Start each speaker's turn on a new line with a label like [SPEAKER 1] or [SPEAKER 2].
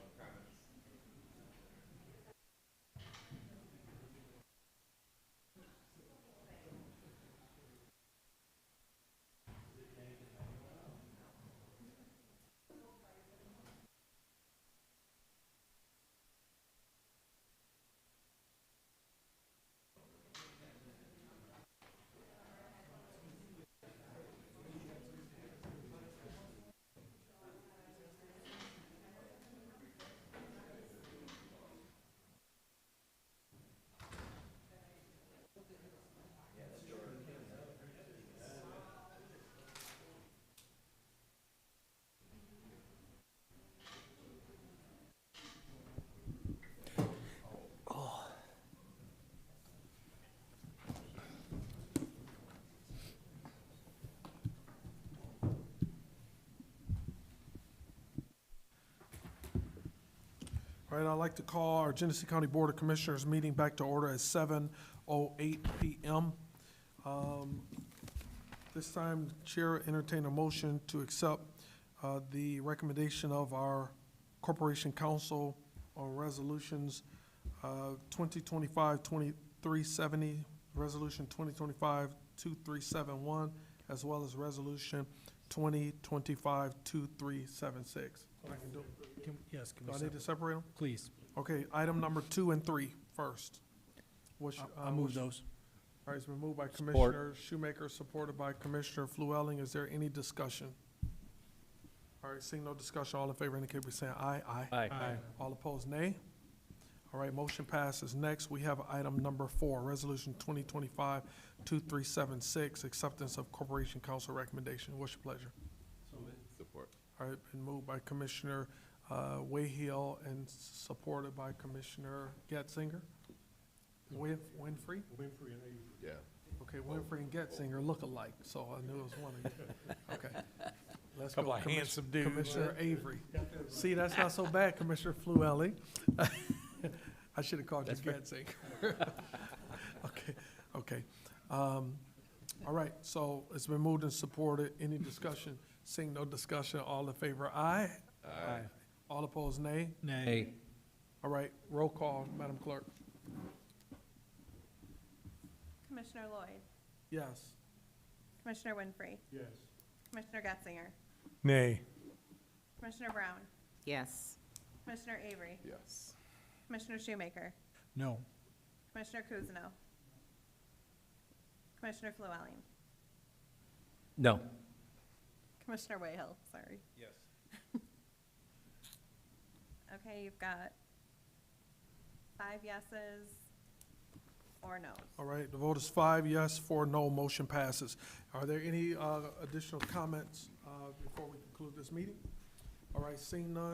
[SPEAKER 1] All right, I'd like to call our Genesee County Board of Commissioners meeting back to order at seven oh eight PM. Um, This time, Chair entertain a motion to accept uh, the recommendation of our Corporation Council on Resolutions uh, 2025-2370, Resolution 2025-2371, as well as Resolution 2025-2376. I can do-
[SPEAKER 2] Can- Yes, can
[SPEAKER 1] Do
[SPEAKER 2] we
[SPEAKER 1] I need to
[SPEAKER 2] separate?
[SPEAKER 1] separate them?
[SPEAKER 2] Please,
[SPEAKER 1] Okay, item number two and three first. What's your-
[SPEAKER 2] I- I
[SPEAKER 1] uh,
[SPEAKER 2] move
[SPEAKER 1] what's-
[SPEAKER 2] those.
[SPEAKER 1] All right, it's been moved by Commissioner Shoemaker, supported by Commissioner Fluelling. Is there any discussion? All right, seeing no discussion, all in favor indicate by saying aye. Aye.
[SPEAKER 2] Aye.
[SPEAKER 1] All opposed, nay. All right, motion passes. Next, we have item number four, Resolution 2025-2376, acceptance of Corporation Council recommendation. What's your pleasure?
[SPEAKER 3] Support.
[SPEAKER 1] All right, been moved by Commissioner uh, Wayhill and supported by Commissioner Getzinger. Win- Winfrey?
[SPEAKER 3] Yeah.
[SPEAKER 1] Okay, Winfrey and Getzinger look alike, so I knew it was one of you. Okay. Let's go,
[SPEAKER 4] Couple of
[SPEAKER 1] Commis-
[SPEAKER 4] handsome dudes.
[SPEAKER 1] Commissioner Avery. See, that's not so bad, Commissioner Flewelly. I should have called you Getzinger. Okay, okay. Um, All right, so it's been moved and supported. Any discussion? Seeing no discussion, all in favor, aye.
[SPEAKER 2] Aye.
[SPEAKER 1] All opposed, nay.
[SPEAKER 2] Nay.
[SPEAKER 1] All right, roll call, Madam Clerk.
[SPEAKER 5] Commissioner Lloyd,
[SPEAKER 1] Yes.
[SPEAKER 5] Commissioner Winfrey,
[SPEAKER 1] Yes.
[SPEAKER 5] Commissioner Getzinger,
[SPEAKER 4] Nay.
[SPEAKER 5] Commissioner Brown,
[SPEAKER 6] Yes.
[SPEAKER 5] Commissioner Avery,
[SPEAKER 3] Yes.
[SPEAKER 5] Commissioner Shoemaker,
[SPEAKER 2] No.
[SPEAKER 5] Commissioner Kuzno, Commissioner Flewelling,
[SPEAKER 2] No.
[SPEAKER 5] Commissioner Wayhill, sorry. Yes. Okay, you've got five yeses or noes.
[SPEAKER 1] All right, the vote is five yes, four no, motion passes. Are there any uh, additional comments uh, before we conclude this meeting? All right, seeing none,